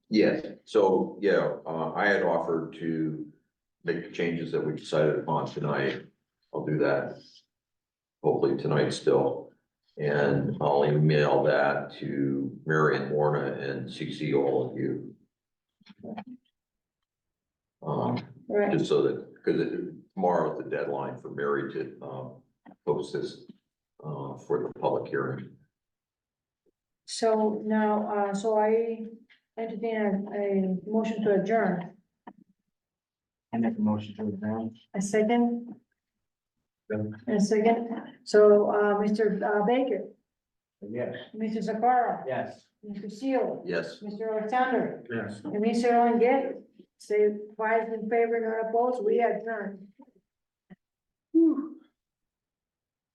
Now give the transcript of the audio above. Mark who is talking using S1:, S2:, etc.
S1: Yes, so, yeah, uh, I had offered to make the changes that we decided upon tonight. I'll do that. Hopefully tonight still, and I'll email that to Mary and Lorna and CC all of you. Um,
S2: Right,
S1: just so that, because tomorrow is the deadline for Mary to, um, post this, uh, for the public hearing.
S2: so now, uh, so I entertain a, a motion to adjourn.
S3: I make a motion to adjourn.
S2: A second?
S3: Yeah.
S2: A second, so, uh, Mr. Baker,
S3: Yes.
S2: Mr. Zakara,
S3: Yes.
S2: Mr. Seal,
S1: Yes,
S2: Mr. Alexander,
S3: Yes.
S2: and Mr. Longet. Say five in favor, none opposed, we adjourn. Whew.